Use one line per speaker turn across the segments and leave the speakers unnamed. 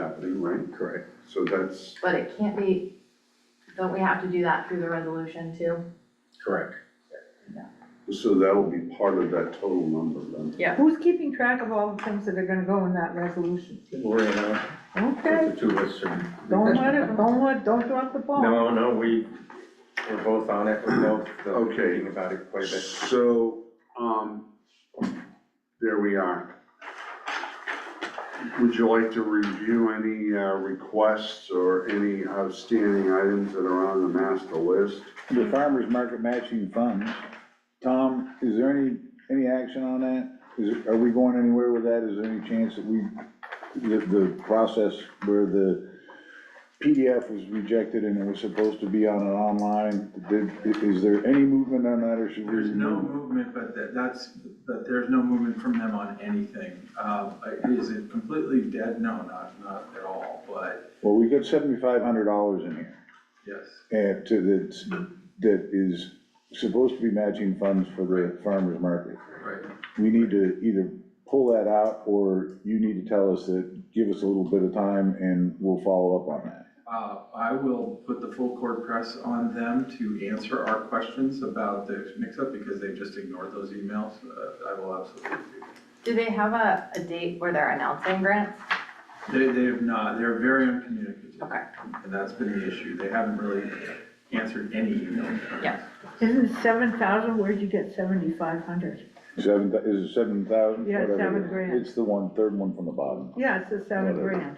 happening, right?
Correct.
So that's,
But it can't be, don't we have to do that through the resolution too?
Correct.
so that will be part of that total number then.
Who's keeping track of all the things that are gonna go in that resolution?
Lori and I,
Okay,
uh, the two of us are.
don't let it, don't let, don't drop the ball.
No, no, we, we're both on it, we're both uh,
Okay.
thinking about it quite a bit.
So, um, there we are. Would you like to review any uh, requests or any outstanding items that are on the master list?
The farmer's market matching funds, Tom, is there any, any action on that? Is, are we going anywhere with that? Is there any chance that we, the, the process where the PDF was rejected and it was supposed to be on an online, did, is there any movement on that or should we?
There's no
Mm-hmm.
movement, but that, that's, but there's no movement from them on anything. Um, is it completely dead? No, not, not at all, but
Well, we got seventy-five hundred dollars in here,
yes.
and to, that, that is supposed to be matching funds for the farmer's market.
Right.
we need to either pull that out, or you need to tell us that, give us a little bit of time, and we'll follow up on that.
Uh, I will put the full court press on them to answer our questions about the mix-up because they just ignored those emails. Uh, I will absolutely do that.
Do they have a, a date where they're announcing grants?
They, they have not, they're very uncommunicative.
Okay.
And that's been the issue. They haven't really answered any emails.
Yeah.
Isn't seven thousand, where'd you get seventy-five hundred?
Seven, thou- is it seven thousand?
Yeah, seven grand.
It's the one, third one from the bottom.
Yeah, it's a seven grand.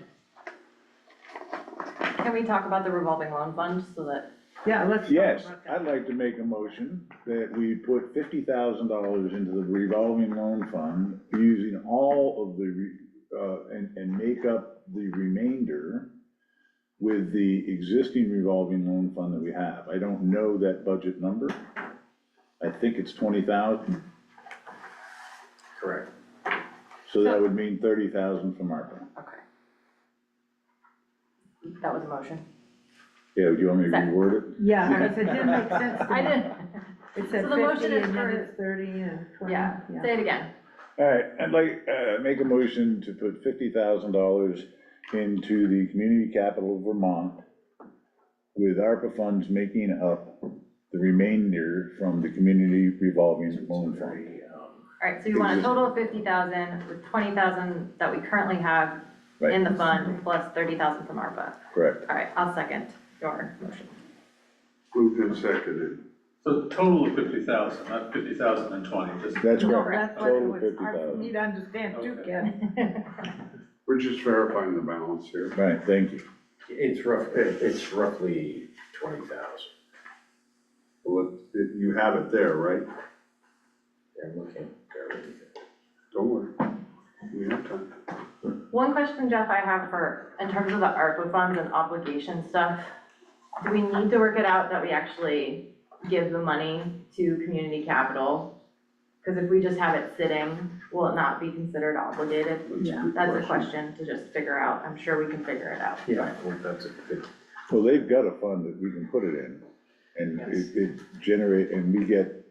Can we talk about the revolving loan fund so that,
Yeah, let's talk
Yes,
about that.
I'd like to make a motion that we put fifty thousand dollars into the revolving loan fund, using all of the, re- uh, and, and make up the remainder with the existing revolving loan fund that we have. I don't know that budget number. I think it's twenty thousand,
Correct.
so that would mean thirty thousand from ARPA.
okay. That was a motion.
Yeah, do you want me to reword it?
Yeah, because it didn't make sense to me.
I didn't,
It said
So the motion
fifty
is
and then
for-
it's thirty and twenty,
yeah,
yeah.
say it again.
All right, I'd like, uh, make a motion to put fifty thousand dollars into the community capital of Vermont with ARPA funds making up the remainder from the community revolving loan fund.
Alright, so you want a total of fifty thousand with twenty thousand that we currently have in
Right,
the fund plus thirty thousand from ARPA.
correct.
Alright, I'll second your motion.
Moved and seconded.
So total of fifty thousand, not fifty thousand and twenty, just.
That's
No,
correct.
that's what it
Total
was, hard for
50,000.
me to understand too,
Okay.
Ken.
We're just verifying the balance here.
Right, thank you.
It's rough, it's roughly twenty thousand.
Well, it- You have it there, right?
I'm looking. very good.
Don't worry. We have time.
One question, Jeff, I have for, in terms of the ARPA funds and obligation stuff, do we need to work it out that we actually give the money to community capital? Because if we just have it sitting, will it not be considered obligated?
That's a good
That's a question to just figure out, I'm sure we can figure it out.
Yeah, well, that's a good,
Well, they've got a fund that we can put it in, and it, it generate, and we get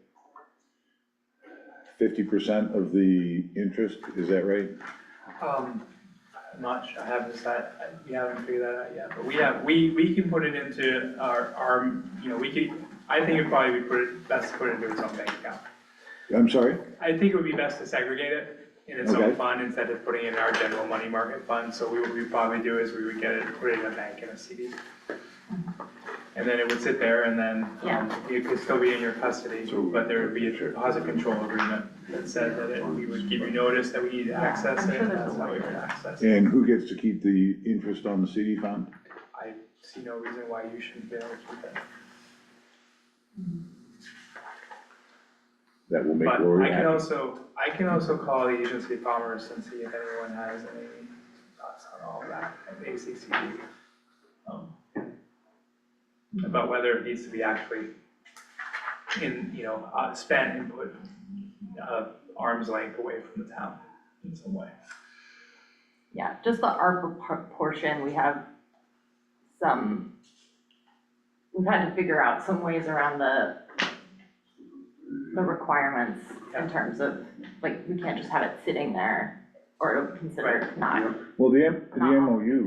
fifty percent of the interest, is that right?
Um, I'm not sure, I haven't decided, I- we haven't figured that out yet, but we have, we, we can put it into our, our, you know, we could, I think it'd probably be put, it- best to put it into its own bank account.
I'm sorry?
I think it would be best to segregate it in its own
Okay.
fund instead of putting it in our general money market fund, so we, what we'd probably do is we would get it, put it in a bank in a CD. And then it would sit there and then, um,
Yeah.
it could still be in your custody,
So-
but there would be a deposit control agreement that said that it, we would give you notice that we need to
Yeah,
access
I'm
it,
sure
and
there's
that's
a
how
way
we
to-
would access it.
And who gets to keep the interest on the CD fund?
I see no reason why you shouldn't be able to keep that.
That will make
But
Lori
I can
happy.
also, I can also call the agency of commerce and see if anyone has any thoughts on all of that, and ACCD. um, About whether it needs to be actually in, you know, uh, spent and put, uh, arm's length away from the town in some way.
Yeah, just the ARPA por- portion, we have some, we've had to figure out some ways around the, the requirements in terms of, like, we can't just have it sitting there or considered not
Well, the, M- the
Uh-uh.
MOU